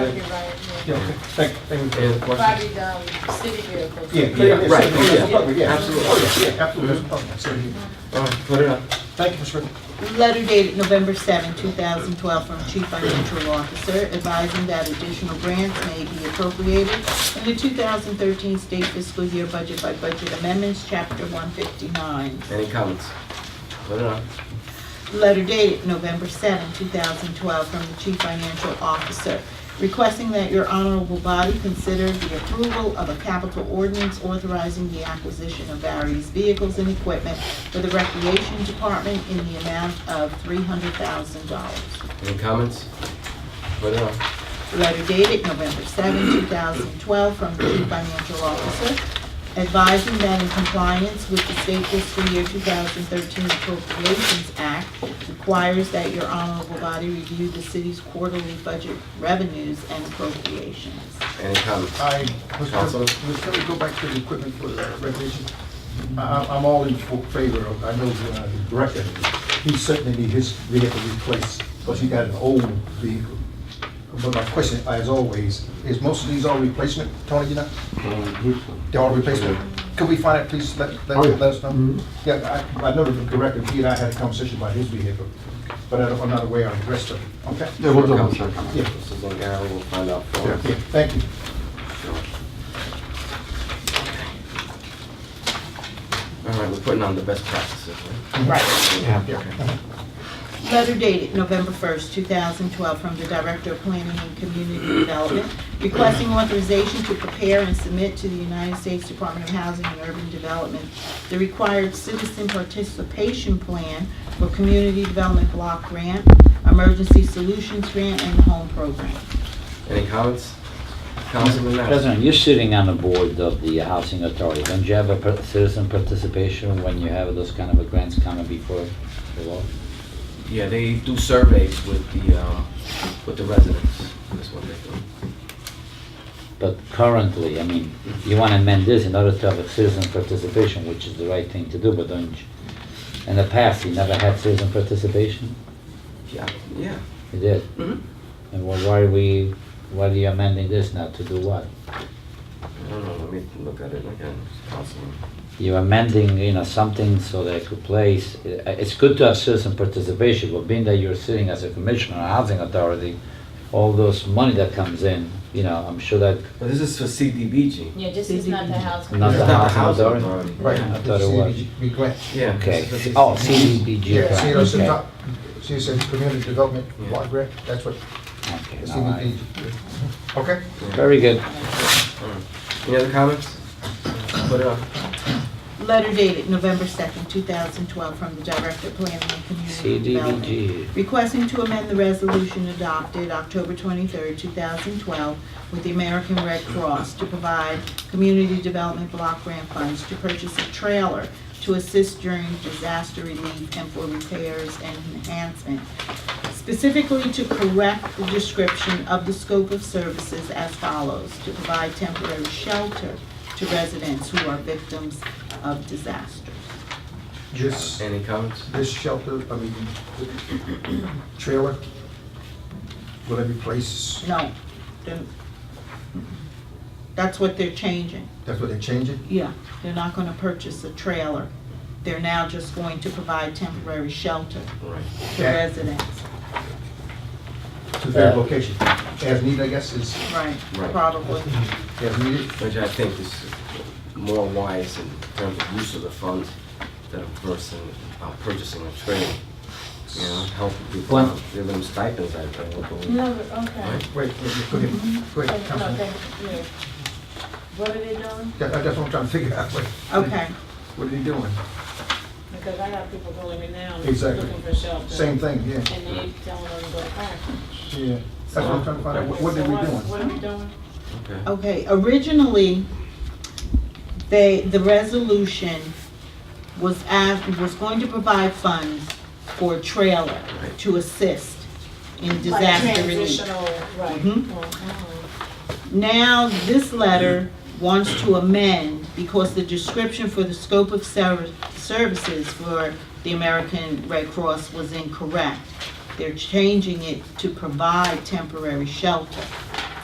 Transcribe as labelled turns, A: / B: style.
A: Thank you.
B: Yeah, okay. Thank, thank you for the question.
A: Probably, um, city vehicles.
B: Yeah, yeah, yeah,
C: Right,
B: certainly,
C: yeah,
B: no problem, yeah.
C: absolutely.
B: Oh, yeah, yeah, absolutely, no problem, certainly.
C: All right, Oh, put it up.
B: Thank you, Ms. Rickman.
D: Letter dated November 7, 2012, from Chief Financial Officer advising that additional grants may be appropriated in the 2013 state fiscal year budget by budget amendments, Chapter 159.
C: Any comments? Put it up.
D: Letter dated November 7, 2012, from the Chief Financial Officer, requesting that your honorable body consider the approval of a capital ordinance authorizing the acquisition of various vehicles and equipment for the Recreation Department in the amount of $300,000.
C: Any comments? Put it up.
D: Letter dated November 7, 2012, from the Chief Financial Officer, advising that in compliance with the State Fiscal Year 2013 Appropriations Act requires that your honorable body review the city's quarterly budget revenues and appropriations.
C: Any comments?
B: I, Mr.
C: Councilman?
B: President, can we go back to the equipment for the recreation? I- I'm all in for- favor of, I know the uh, director, he certainly need his vehicle replaced, because he got an old vehicle. But my question, as always, is most of these all replacement, Tony, you know? They're all replacement. Could we find it, please, let, let
E: Oh, yeah.
B: let us know? Yeah, I, I know the director, he and I had a conversation about his vehicle, but I don't- I'm not aware of the rest of it, okay?
E: Yeah, we'll double check.
B: Yeah.
C: This is on Gary, we'll find out for
B: Yeah,
C: us.
B: thank you.
C: All right, we're putting on the best practices, right?
D: Right.
B: Yeah.
D: Letter dated November 1st, 2012, from the Director of Planning and Community Development requesting authorization to prepare and submit to the United States Department of Housing and Urban Development the required citizen participation plan for Community Development Block Grant, Emergency Solutions Grant, and Home Program.
C: Any comments? Councilman Madison?
F: President, you're sitting on the board of the housing authority. Don't you have a par- citizen participation when you have those kind of a grants coming before the law?
C: Yeah, they do surveys with the, um, with the residents. That's what they do.
F: But currently, I mean, you want to amend this in order to have a citizen participation, which is the right thing to do, but don't you? In the past, you never had citizen participation?
C: Yeah, yeah.
F: You did.
C: Mhm.
F: And wh- why are we, why are you amending this now? To do what?
C: I don't know, let me look at it again, Councilman.
F: You're amending, you know, something so that it could place, i- it's good to have citizen participation, but being that you're sitting as a commissioner, on housing authority, all those money that comes in, you know, I'm sure that,
C: But this is for CDBG.
A: Yeah, just, it's not the house.
F: Not
C: It's
F: the
C: not the
F: housing
C: housing
F: authority?
C: authority.
B: Right.
F: I thought it was.
B: Be glad.
C: Yeah.
F: okay.
C: this is for
F: Oh, CDBG,
B: Yeah, see, it's
F: okay.
B: a
F: Okay,
B: top, see, it's a community development
C: Yeah.
B: block grant, that's what
F: all right.
B: CDBG. Okay?
F: Very good.
C: Any other comments? Put it up.
D: Letter dated November 2nd, 2012, from the Director of Planning and Community Development
F: CDBG.
D: requesting to amend the resolution adopted October 23, 2012, with the American Red Cross to provide community development block grant funds to purchase a trailer to assist during disaster relief and for repairs and enhancement, specifically to correct the description of the scope of services as follows: to provide temporary shelter to residents who are victims of disasters.
B: This,
C: Any comments?
B: this shelter, I mean, trailer, will it replace,
D: No, then- that's what they're changing.
B: that's what they're changing?
D: Yeah, they're not gonna purchase a trailer. They're now just going to provide temporary shelter
C: All right.
D: to
B: Yeah.
D: residents.
B: To their
F: Yeah.
B: location, as needed, I guess, is,
D: Right,
C: Right.
D: probably.
B: as needed,
C: Which I think is more wise in terms of use of the funds than a person uh, purchasing a trailer. You know, helping people
F: One-
C: out, give them stipends, I I would believe.
A: No, but- okay.
C: Right.
B: wait, wait, go ahead, go ahead,
A: Okay, no,
B: Councilman.
A: thank you. Yeah. What are they doing?
B: That, that's what I'm trying to figure out, what,
D: Okay,
B: what are they doing?
A: Because I have people going in now and
B: Exactly.
A: looking for shelter.
B: Same thing, yeah,
A: And they telling them to go home.
B: yeah, that's what I'm trying to find out, what, what are
A: So
B: we
A: What
B: doing?
A: are we doing?
C: Okay.
D: okay. Originally, they, the resolution was asked, was going to provide funds for a trailer to assist in
A: Like
D: disaster relief.
A: transitional, right.
D: Mhm.
A: Mhm.
D: Now, this letter wants to amend because the description for the scope of ser- services for the American Red Cross was incorrect. They're changing it to provide temporary shelter.